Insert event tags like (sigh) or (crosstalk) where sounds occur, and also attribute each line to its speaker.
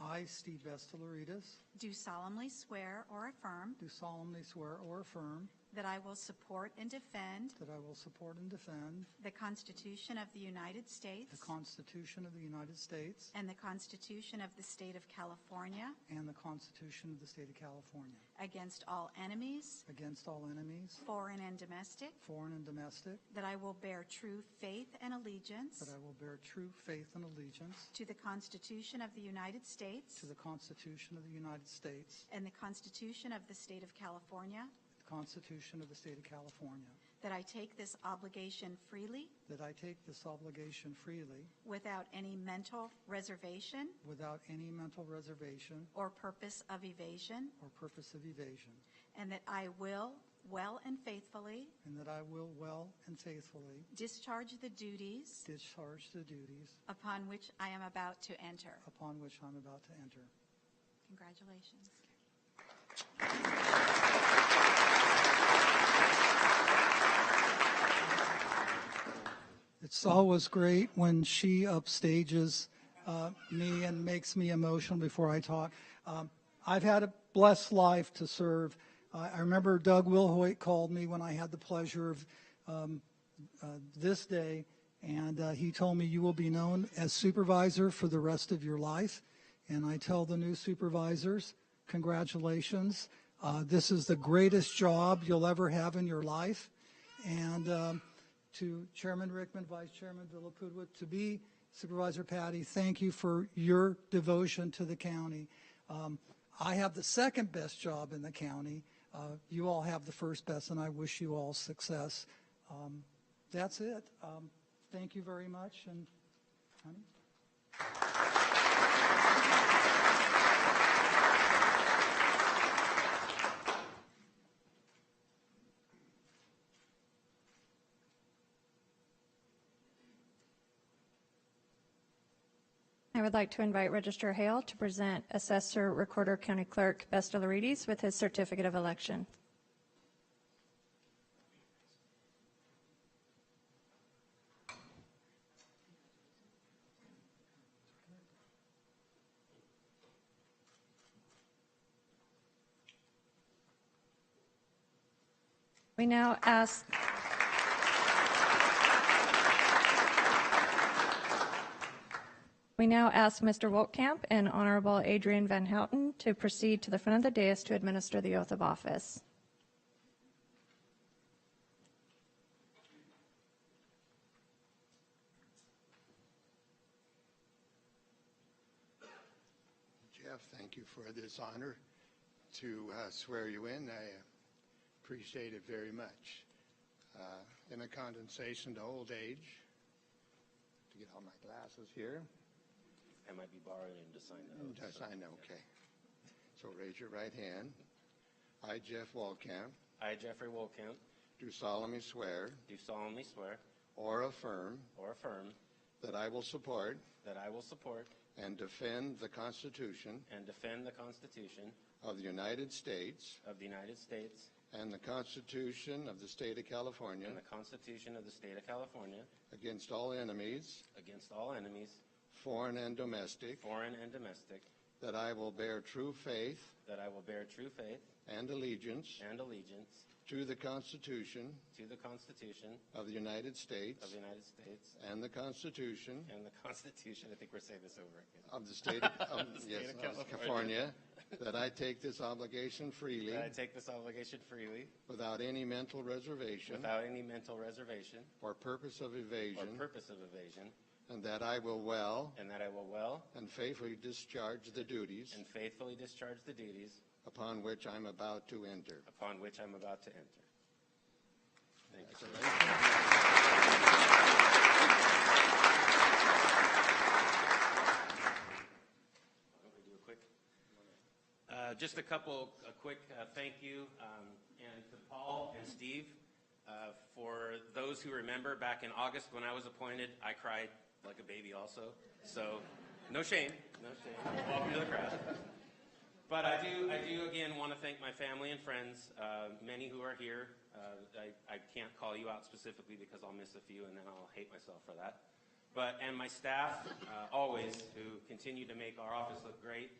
Speaker 1: I, Steve Vestalaritas,
Speaker 2: do solemnly swear or affirm
Speaker 1: do solemnly swear or affirm
Speaker 2: that I will support and defend
Speaker 1: that I will support and defend
Speaker 2: the Constitution of the United
Speaker 1: the
Speaker 2: States
Speaker 1: Constitution of the United States
Speaker 2: and the Constitution of the State of California
Speaker 1: and the Constitution of the State of California,
Speaker 2: against all enemies,
Speaker 1: against all enemies,
Speaker 2: foreign and domestic,
Speaker 1: foreign and domestic,
Speaker 2: that I will bear true faith and allegiance
Speaker 1: that I will bear true faith and allegiance
Speaker 2: to the Constitution of the United States
Speaker 1: to the Constitution of the United States,
Speaker 2: and the Constitution of the State of California,
Speaker 1: the Constitution of the State of California,
Speaker 2: that I take this obligation freely
Speaker 1: that I take this obligation freely
Speaker 2: without any mental reservation
Speaker 1: without any mental reservation
Speaker 2: or purpose of evasion,
Speaker 1: or purpose of evasion,
Speaker 2: and that I will well and faithfully
Speaker 1: and that I will well and faithfully
Speaker 2: discharge the duties
Speaker 1: discharge the duties
Speaker 2: upon which I am about to enter.
Speaker 1: upon which I'm about to enter.
Speaker 2: Congratulations.
Speaker 1: It's always great when she upstages uh, me and makes me emotional before I talk. Um, I've had a blessed life to serve. I I remember Doug Wilhoit called me when I had the pleasure of um, uh, this day, and uh, he told me, "You will be known as supervisor for the rest of your life." And I tell the new supervisors, "Congratulations! Uh, this is the greatest job you'll ever have in your life." And um, to Chairman Rickman, Vice Chairman Villapudua, to be Supervisor Patty, thank you for your devotion to the county. Um, I have the second best job in the county. Uh, You all have the first best, and I wish you all success. Um, That's it. Um, Thank you very much, and honey?
Speaker 3: I would like to invite Register Hale to present Assessor Recorder County Clerk Bestelarides with his certificate of election. We now ask We now ask Mr. Wolkamp and Honorable Adrian Van Houten to proceed to the front of the dais to administer the oath of office.
Speaker 4: Jeff, thank you for this honor to uh, swear you in. I appreciate it very much. Uh, In a condensation to old age, to get all my glasses here.
Speaker 5: I might be borrowing him to sign the oath.
Speaker 4: Yes,
Speaker 5: so-
Speaker 4: I know, okay. So raise your right hand. I, Jeff Walkamp,
Speaker 5: I, Jeffrey Wolkamp,
Speaker 4: do solemnly swear
Speaker 5: do solemnly swear
Speaker 4: or affirm
Speaker 5: or affirm
Speaker 4: that I will support
Speaker 5: that I will support
Speaker 4: and defend the Constitution
Speaker 5: and defend the Constitution
Speaker 4: of the United States
Speaker 5: of the United States
Speaker 4: and the Constitution of the State of California
Speaker 5: and the Constitution of the State of California
Speaker 4: against all enemies,
Speaker 5: against all enemies,
Speaker 4: foreign and domestic,
Speaker 5: foreign and domestic,
Speaker 4: that I will bear true faith
Speaker 5: that I will bear true faith
Speaker 4: and allegiance
Speaker 5: and allegiance
Speaker 4: to the Constitution
Speaker 5: to the Constitution
Speaker 4: of the United States
Speaker 5: of the United States
Speaker 4: and the Constitution
Speaker 5: and the (laughs) Constitution, I think we're saying this over again,
Speaker 4: of the State of, of-
Speaker 5: The (laughs) State
Speaker 4: yes,
Speaker 5: of
Speaker 4: of California,
Speaker 5: California.
Speaker 4: that I take this obligation freely
Speaker 5: that I take this obligation freely
Speaker 4: without any mental reservation
Speaker 5: without any mental reservation
Speaker 4: or purpose of
Speaker 5: or
Speaker 4: evasion,
Speaker 5: purpose of evasion,
Speaker 4: and that I will well
Speaker 5: and that I will well
Speaker 4: and faithfully discharge the duties
Speaker 5: and faithfully discharge the duties
Speaker 4: upon which I'm about to enter.
Speaker 5: upon which I'm about to enter. Thank you. Why don't we do a quick- Uh, Just a couple, a quick uh, thank you, um, and to Paul and Steve. uh, For those who remember, back in August when I was appointed, I cried like a baby also. So, no shame, no shame. Welcome to the crowd. But I do, I do again want to thank my family and friends, uh, many who are here. Uh, I, I can't call you out specifically because I'll miss a few and then I'll hate myself for that. But, and my staff, uh, always, who continue to make our office look great.